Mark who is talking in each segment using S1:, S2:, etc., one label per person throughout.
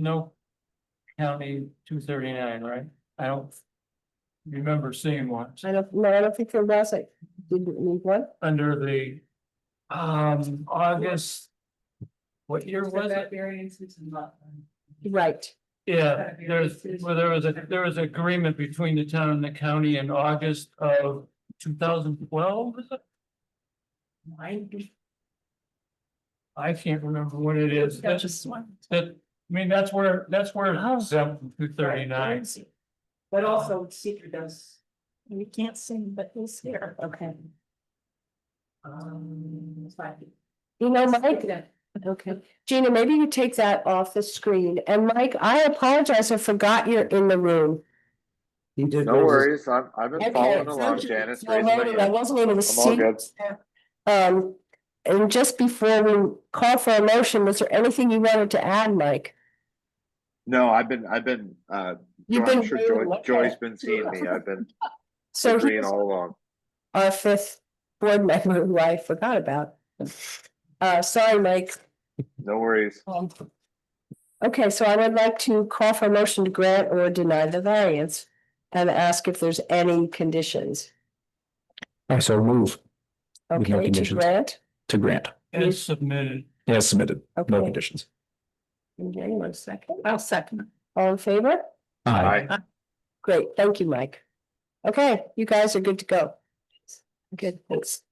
S1: No county two thirty-nine, right? I don't remember seeing one
S2: I don't, no, I don't think there was, I didn't need one.
S1: under the um, August. What year was it?
S3: variances and lot. line.
S2: Right,
S1: Yeah, there's, well, there was a, there was agreement between the town and the county in August of two thousand twelve.
S3: Mine.
S1: I can't remember what it is. That's,
S3: That's just one.
S1: that, I mean, that's where, that's where
S2: Oh.
S1: it's exempt from two thirty-nine.
S3: But also secret does. We can't sing, but he's here.
S2: okay.
S3: Um, it's fine.
S2: You know, Mike, okay, Gina, maybe you take that off the screen, and Mike, I apologize, I forgot you're in the room.
S4: He did.
S5: No
S4: raise his-
S5: worries, I'm, I've
S2: Okay,
S5: been following
S2: so-
S5: along, Janice
S2: I
S5: raised my
S2: voted, I
S5: hand,
S2: wasn't able to
S5: I'm all
S2: see,
S5: good.
S2: um, and just before we call for a motion, was there anything you wanted to add, Mike?
S5: No, I've been, I've been, uh, Joy-
S2: You've been
S5: I'm sure Joy, Joy's been seeing me, I've been
S2: So
S5: agreeing
S2: here's
S5: all along.
S2: our fifth board member who I forgot about. Uh, sorry, Mike.
S5: No worries,
S2: Okay, so I would like to call for a motion to grant or deny the variance and ask if there's any conditions.
S4: I so move With
S2: Okay,
S4: no
S2: to
S4: conditions.
S2: grant,
S4: to grant
S1: As submitted.
S4: as submitted, no
S2: okay.
S4: conditions.
S2: Okay, one second.
S3: I'll second.
S2: All in favor?
S5: I,
S2: Great, thank you, Mike. Okay, you guys are good to go. Good, thanks.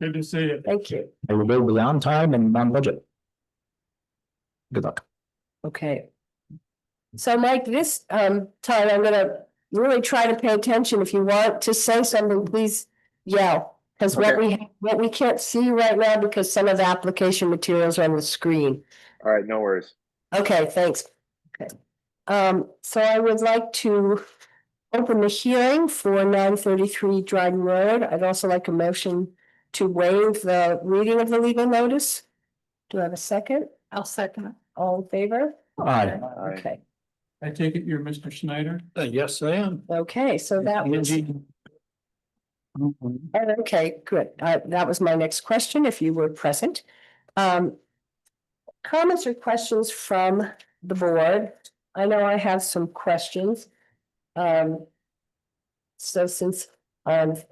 S1: Good to see you.
S2: Thank you.
S4: I will be on time and on budget. Good luck.
S2: Okay. So Mike, this um time I'm gonna really try to pay attention. If you want to say something, please yell. Cause what we, what we can't see right now because some of the application materials are on the screen.
S5: all right, no worries.
S2: Okay, thanks. Okay. Um, so I would like to open the hearing for nine thirty-three Dryden Road. I'd also like a motion to waive the reading of the legal notice. Do I have a second?
S3: I'll second.
S2: All in favor?
S4: Aye.
S2: Okay,
S1: I take it you're Mr. Snyder?
S4: Uh, Yes, I am.
S2: okay, so that was. Oh, Okay, good. Uh, that was my next question, if you were present. Um. Comments or questions from the board? I know I have some questions. Um. So since I've.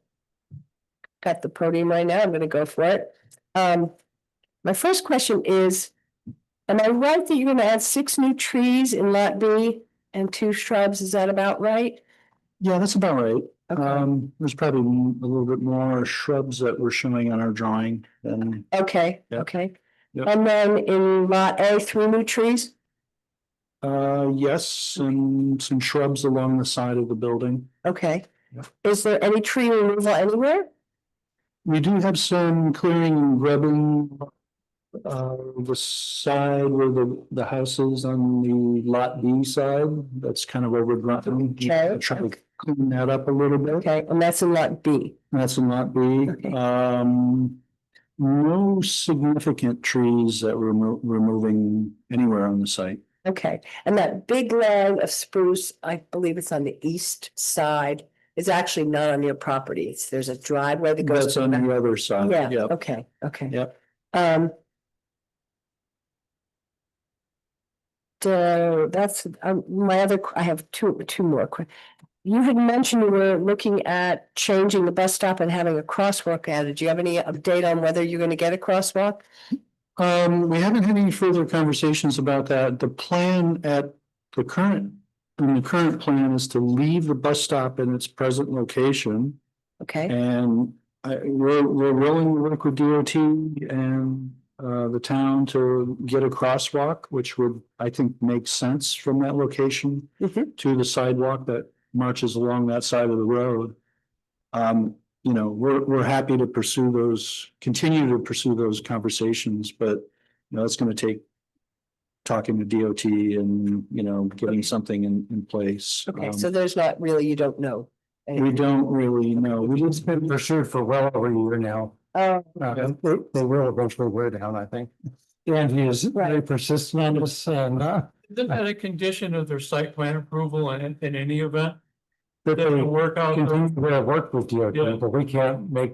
S2: Got the podium right now, I'm gonna go for it. Um, my first question is. Am I right that you're gonna add six new trees in lot B and two shrubs? Is that about right?
S4: Yeah, that's about right.
S2: Okay.
S4: Um, there's probably m- a little bit more shrubs that we're showing on our drawing than,
S2: Okay,
S4: Yeah.
S2: okay.
S4: Yeah.
S2: And then in lot A, three new trees?
S4: uh, yes, and some shrubs along the side of the building.
S2: Okay.
S4: Yeah.
S2: Is there any tree removal anywhere?
S4: We do have some clearing and grubbing. Uh, the side where the, the house is on the lot B side, that's kind of overgrown.
S2: Okay.
S4: Try to clean that up a little bit.
S2: Okay, and that's in lot B.
S4: That's a lot B.
S2: Okay.
S4: Um, no significant trees that we're remo- removing anywhere on the site.
S2: Okay, and that big line of spruce, I believe it's on the east side, is actually not on your property. It's, there's a driveway that goes.
S4: That's on the other side.
S2: Yeah,
S4: Yep.
S2: okay, okay.
S4: Yep.
S2: Um. So that's, um, my other, qu- I have two, two more quick. You had mentioned you were looking at changing the bus stop and having a crosswalk added. Do you have any update on whether you're gonna get a crosswalk?
S4: Um, we haven't had any further conversations about that. The plan at the current, in the current plan is to leave the bus stop in its present location.
S2: Okay,
S4: And I, we're, we're willing to work with DOT and, uh, the town to get a crosswalk, which would, I think, make sense from that location
S2: Mhm.
S4: to the sidewalk that marches along that side of the road. Um, you know, we're, we're happy to pursue those, continue to pursue those conversations, but, you know, it's gonna take talking to DOT and, you know, getting something in, in place.
S2: okay,
S4: Um,
S2: so there's not really, you don't know.
S4: we don't really know. We just been pursued for well over a year now.
S2: Oh,
S4: Uh,
S6: They, they will eventually wear down, I think. And he is very
S2: Right.
S6: persistent on this and, uh,
S1: Isn't that a condition of their site plan approval in, in any event?
S4: that
S7: They have to
S4: they
S7: work out. their-
S4: continue to work with DOT,
S7: Yeah.
S4: but we can't make